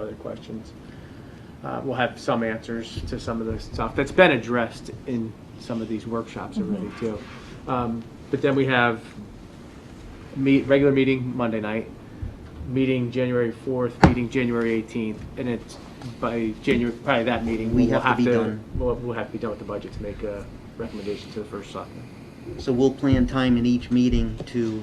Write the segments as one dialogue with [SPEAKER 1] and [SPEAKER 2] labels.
[SPEAKER 1] other questions. Uh, We'll have some answers to some of the stuff that's been addressed in some of these workshops already
[SPEAKER 2] Mm-hmm.
[SPEAKER 1] too. Um, But then we have meet, regular meeting Monday night, meeting January 4th, meeting January 18th, and it's by January, probably that meeting.
[SPEAKER 2] We
[SPEAKER 1] we'll
[SPEAKER 2] have to be done.
[SPEAKER 1] We'll, we'll have to be done with the budget to make a recommendation to the first selectman.
[SPEAKER 2] So we'll plan time in each meeting to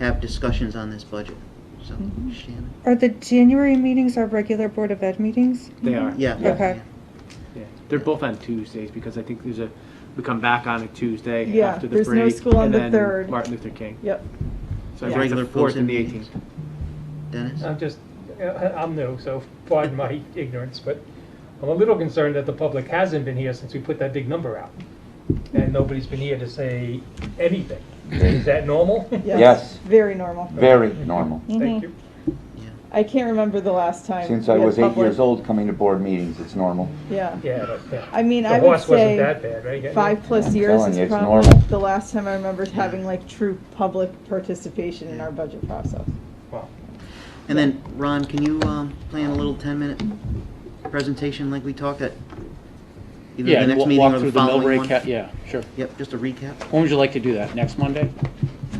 [SPEAKER 2] have discussions on this budget. So Shannon,
[SPEAKER 3] Are the January meetings our regular Board of Ed meetings?
[SPEAKER 1] They are.
[SPEAKER 2] yeah.
[SPEAKER 3] Okay.
[SPEAKER 2] yeah.
[SPEAKER 1] Yeah. They're both on Tuesdays because I think there's a, we come back on a Tuesday
[SPEAKER 4] Yeah,
[SPEAKER 1] after the break.
[SPEAKER 4] there's no school on
[SPEAKER 1] and
[SPEAKER 4] the
[SPEAKER 1] then
[SPEAKER 4] 3rd.
[SPEAKER 1] Martin Luther King. So
[SPEAKER 4] Yep. Yeah.
[SPEAKER 1] I think it's
[SPEAKER 2] Regular
[SPEAKER 1] the fourth
[SPEAKER 2] full-time
[SPEAKER 1] and the
[SPEAKER 2] meetings.
[SPEAKER 1] eighteenth.
[SPEAKER 2] Dennis?
[SPEAKER 5] Uh,
[SPEAKER 6] I'm just, I'm new, so pardon my ignorance, but I'm a little concerned that the public hasn't been here since we put that big number out. And nobody's been here to say anything. Is that normal?
[SPEAKER 7] Yes.
[SPEAKER 4] Very normal.
[SPEAKER 7] Very normal.
[SPEAKER 3] Mm-hmm.
[SPEAKER 6] Thank you.
[SPEAKER 4] Mm-hmm. I can't remember the last time.
[SPEAKER 7] Since I
[SPEAKER 4] we had
[SPEAKER 7] was eight
[SPEAKER 4] public-
[SPEAKER 7] years old, coming to board meetings, it's normal.
[SPEAKER 4] Yeah.
[SPEAKER 6] Yeah, but, yeah.
[SPEAKER 4] I mean,
[SPEAKER 6] The
[SPEAKER 4] I would
[SPEAKER 6] horse wasn't
[SPEAKER 4] say
[SPEAKER 6] that bad, right?
[SPEAKER 4] five plus
[SPEAKER 7] I'm
[SPEAKER 4] years
[SPEAKER 7] telling you,
[SPEAKER 4] is
[SPEAKER 7] it's
[SPEAKER 4] probably
[SPEAKER 7] normal.
[SPEAKER 4] the last time I remember having like true public participation in our budget process.
[SPEAKER 6] Wow.
[SPEAKER 2] And then, Ron, can you um, plan a little 10-minute presentation like we talked at either
[SPEAKER 5] Yeah,
[SPEAKER 2] the
[SPEAKER 5] and
[SPEAKER 2] next
[SPEAKER 5] wa-
[SPEAKER 2] meeting
[SPEAKER 5] walk
[SPEAKER 2] or
[SPEAKER 5] through
[SPEAKER 2] the
[SPEAKER 5] the mill
[SPEAKER 2] following
[SPEAKER 5] rate
[SPEAKER 2] one?
[SPEAKER 5] cap, yeah, sure.
[SPEAKER 2] Yep, just a recap.
[SPEAKER 5] When would you like to do that? Next Monday?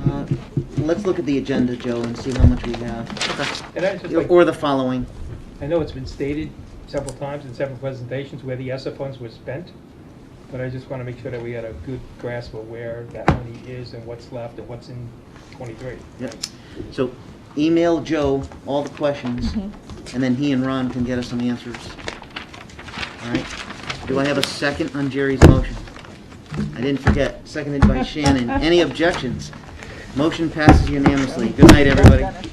[SPEAKER 2] Uh, Let's look at the agenda, Joe, and see how much we have.
[SPEAKER 6] And I just
[SPEAKER 2] Or-
[SPEAKER 6] like,
[SPEAKER 2] Or the following.
[SPEAKER 6] I know it's been stated several times in several presentations where the ESSA funds were spent, but I just want to make sure that we had a good grasp of where that money is and what's left and what's in twenty-three.
[SPEAKER 2] Yep. So email Joe all the questions, and then he and Ron can get us some answers. All right? Do I have a second on Jerry's motion? I didn't forget, seconded by Shannon. Any objections? Motion passes unanimously. Good night, everybody.